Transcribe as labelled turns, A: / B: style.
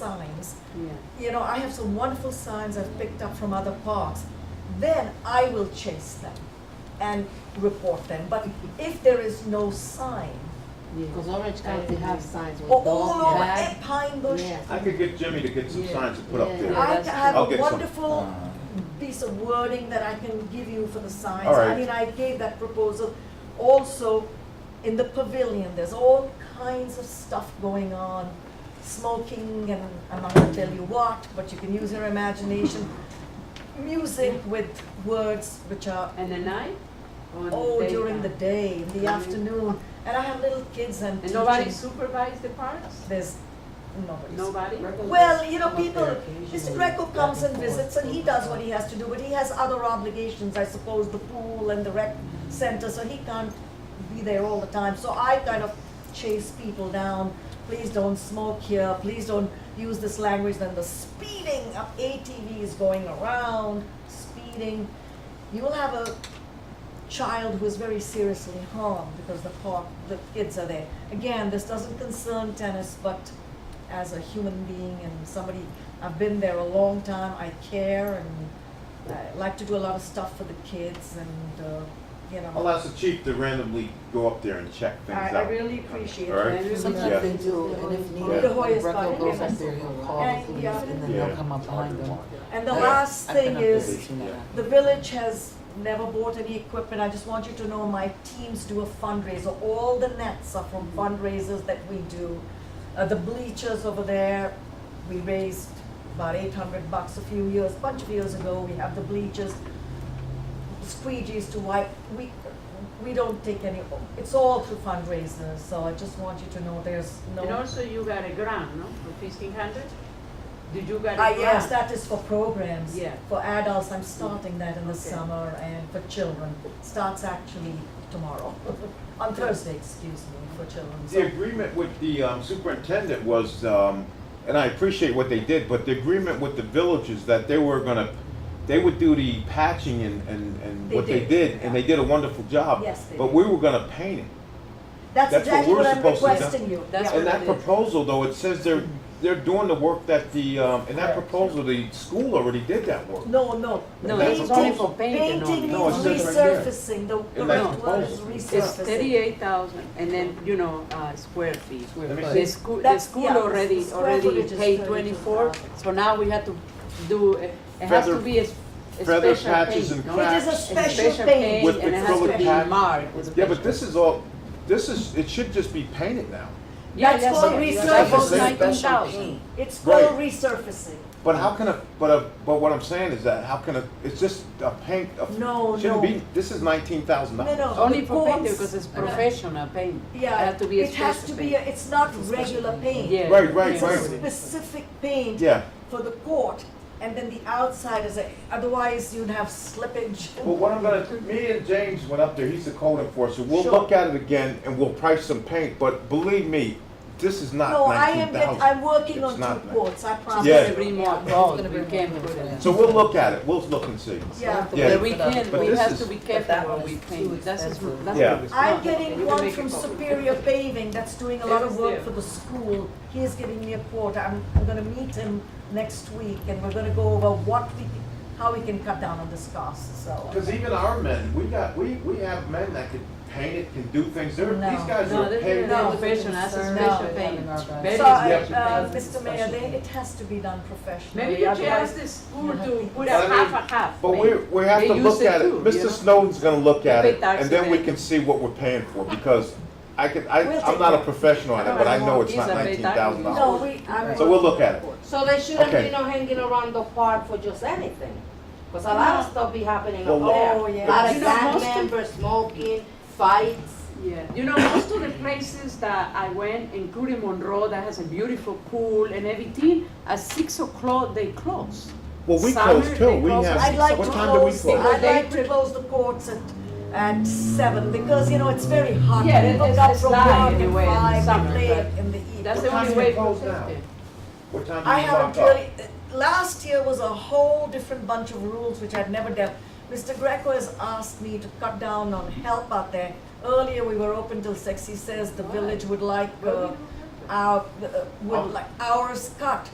A: signs.
B: Yeah.
A: You know, I have some wonderful signs I've picked up from other parks. Then I will chase them and report them. But if there is no sign,
B: Because Orange County have signs with
A: or
B: dog
A: all over
B: tags.
A: at Pine Bush,
B: Yeah.
C: I could get Jimmy to get some
B: Yeah.
C: signs to put up
B: Yeah,
C: there.
A: I
B: that's
A: have
C: true. I'll
A: a
C: get some.
A: wonderful piece of wording that I can give you for the signs.
C: uh-huh. All right.
A: I mean, I gave that proposal also in the pavilion. There's all kinds of stuff going on, smoking and I'm not gonna tell you what, but you can use your imagination. Music with words which are
B: And the night? Or
A: oh during the
B: daytime?
A: day, in the
B: Mhm.
A: afternoon, and I have little kids and
B: And
A: teaching.
B: nobody supervise the parks?
A: There's nobody's.
B: Nobody?
A: Well, you know, people, Mr. Greco comes and visits and he does what he has to do, but he has other obligations, I suppose, the pool and the rec center, so he can't be there all the time. So I kind of chase people down, please don't smoke here, please don't use this language, then the speeding of ATVs going around, speeding. You will have a child who is very seriously harmed because the park, the kids are there. Again, this doesn't concern tennis, but as a human being and somebody, I've been there a long time, I care and I like to do a lot of stuff for the kids and, uh, you
C: I'll
A: know.
C: ask the chief to randomly go up there and check things
A: I,
C: out.
A: I really appreciate
C: All
A: it.
C: right.
A: And
D: Sometimes
C: Yeah.
D: they do, and if needed,
A: The Hoyas
D: if Greco
A: body
D: goes
A: members.
D: up there, he'll call
A: Yeah,
D: the police,
A: yeah.
D: and then
C: Yeah.
D: they'll come up behind them.
A: And the
D: Yeah.
A: last
D: I've been
A: thing
D: up there
A: is,
D: too now.
A: The village has never bought any equipment, I just want you to know my teams do a fundraiser, all the nets are from fundraisers that we do. Uh, the bleachers over there, we raised about eight hundred bucks a few years, bunch of years ago, we have the bleachers, squeegees to wipe, we, we don't take any, it's all through fundraisers, so I just want you to know there's no.
B: And also you got a grant, no, for fifteen hundred? Did you got a
A: I
B: grant?
A: yes, that is for programs.
B: Yeah.
A: For adults, I'm starting that in the
B: Okay.
A: summer, and for children, starts actually tomorrow, on Thursday, excuse me, for children.
C: The
A: So
C: agreement with the um, superintendent was, um, and I appreciate what they did, but the agreement with the village is that they were gonna, they would do the patching and, and, and
A: They
C: what they
A: did,
C: did, and they
A: yeah.
C: did a wonderful job.
A: Yes, they
C: But
A: did.
C: we were gonna paint it.
A: That's
C: that's what
A: exactly
C: we're
A: what I'm
C: supposed to do.
A: requesting you.
B: That's
A: Yeah.
C: And that
B: it is.
C: proposal, though, it says they're, they're doing the work that the, um, in that
A: Correct.
C: proposal, the school already did that work.
A: No, no.
C: No, this
B: is
A: Painting-
B: only for painting
A: Painting
C: only. No, it
A: needs
C: says right here.
A: resurfacing, the, the
C: In that
A: right word is
C: proposal.
B: It's
A: resurfacing.
B: thirty-eight thousand, and then, you know, uh, square feet.
C: Let me
B: The
C: see.
B: school, the
A: That's-
B: school
A: yeah,
B: already,
A: square
B: already
A: footage is
B: paid
A: 32,000.
B: twenty-four, so now we have to do, it it has
C: Feather-
B: to be a s- a
C: feather
B: special
C: patches
B: paint,
C: and
B: no?
A: It is a
C: Cracks.
A: special paint.
C: With
B: and it has
C: acrylic
B: to be
C: pad.
B: marked with a
C: Yeah,
B: picture.
C: but this is all, this is, it should just be painted now.
B: Yeah,
A: That's
B: yeah,
A: called
B: so-
A: research.
B: That was
C: Special
B: nineteen thousand.
A: It's called
C: Right.
A: resurfacing.
C: But how can a, but a, but what I'm saying is that how can a, it's just a paint, a.
A: No, no.
C: Shouldn't be, this is nineteen thousand
A: No,
C: dollars.
A: no.
B: Only
A: the
B: for painting,
A: cones-
B: because it's professional paint. It
A: Yeah,
B: has to be a
A: it has to
B: special
A: be,
B: paint.
A: a- it's not regular paint.
B: Yeah.
C: Right, right,
A: It's a
C: right.
A: specific paint
C: Yeah,
A: for the court, and then the outside is, a- otherwise you'd have slippage.
C: well, what I'm gonna, me and James went up there, he's the code enforcer, we'll
A: Sure.
C: look at it again and we'll price some paint, but believe me, this is
A: No, I
C: not
A: am,
C: nineteen
A: get-
C: thousand.
A: I'm working
C: It's
A: on
C: not
A: two
C: that.
A: courts, I promise.
C: Yeah.
B: It's gonna be
A: you.
B: more gold, we can't put it.
C: So we'll look at it, we'll look and see.
A: Yeah.
C: Yeah.
B: But we can,
C: But
B: we
C: this
B: have
C: is-
B: to be
D: but that
B: careful when
D: one
B: we
D: is
B: paint,
D: too
B: that's, that's
D: expensive.
B: what
C: Yeah.
B: it's
A: I'm
B: not. You
A: getting
B: can
A: one
B: make it
A: from
B: for-
A: Superior Paving that's doing a lot of work for the school. He is giving me a quote. I'm, I'm gonna meet him next week and we're gonna go over what we, how we can cut down on this cost, so.
C: Cause even our men, we got, we, we have men that can paint it, can do things, they're,
A: No.
C: these guys
B: No,
C: are
B: this
C: paid.
B: is
A: No.
B: professional, that's a
A: No.
B: special paint. Very
A: So,
C: I-
B: special
A: uh,
B: paint.
A: Mr. Mayor, uh, they, it has to be done professionally.
B: Maybe you can
A: otherwise-
B: ask the school to
A: Mhm.
B: put a
C: Well, I mean,
B: half a half.
C: But we,
B: maybe.
C: we have
B: They
C: to
B: use
C: look
B: it
C: at it,
B: too, you know?
C: Mr. Snowden's gonna look at
B: They
C: it,
B: tax
C: and then we
B: it.
C: can see what we're paying for, because I could, I,
A: We'll
C: I'm
A: take
C: not a
A: it.
C: professional on it, but I know it's not
B: These are
C: nineteen
B: big
C: thousand dollars.
A: No, we, I'm.
C: So we'll look at it.
E: So they shouldn't
C: Okay.
E: be no hanging around the park for just anything, because a lot
A: No.
E: of stuff be happening
C: Well,
E: up there.
A: oh, yeah.
E: A lot
B: You
E: of
B: know,
E: gang
B: most of-
E: members smoking, fights.
B: Yeah, you know, most of the places that I went, including Monroe, that has a beautiful pool and everything, at six o'clock, they close.
C: Well, we
B: Summer,
C: close too,
B: they
C: we
B: close
C: have,
A: I'd like to
C: what time do we
A: close, the-
C: close?
A: I'd like to close the courts at, at seven, because, you know, it's very hot.
B: Yeah, it-
A: People
B: it's-
A: come
B: it's
A: from
B: light
A: work at
B: anyway in the
A: five and
B: summer,
A: late
B: but
A: in the evening.
B: That's
C: What
B: the
C: time
B: only
C: do you
B: way to
C: close
B: protect
C: now?
B: it.
C: What time
A: I
C: do you
A: haven't
C: lock up?
A: really, last year was a whole different bunch of rules which I'd never dealt. Mr. Greco has asked me to cut down on help out there. Earlier, we were open till
C: Oh.
A: six, he says the village would like, uh, our, uh, would like hours cut.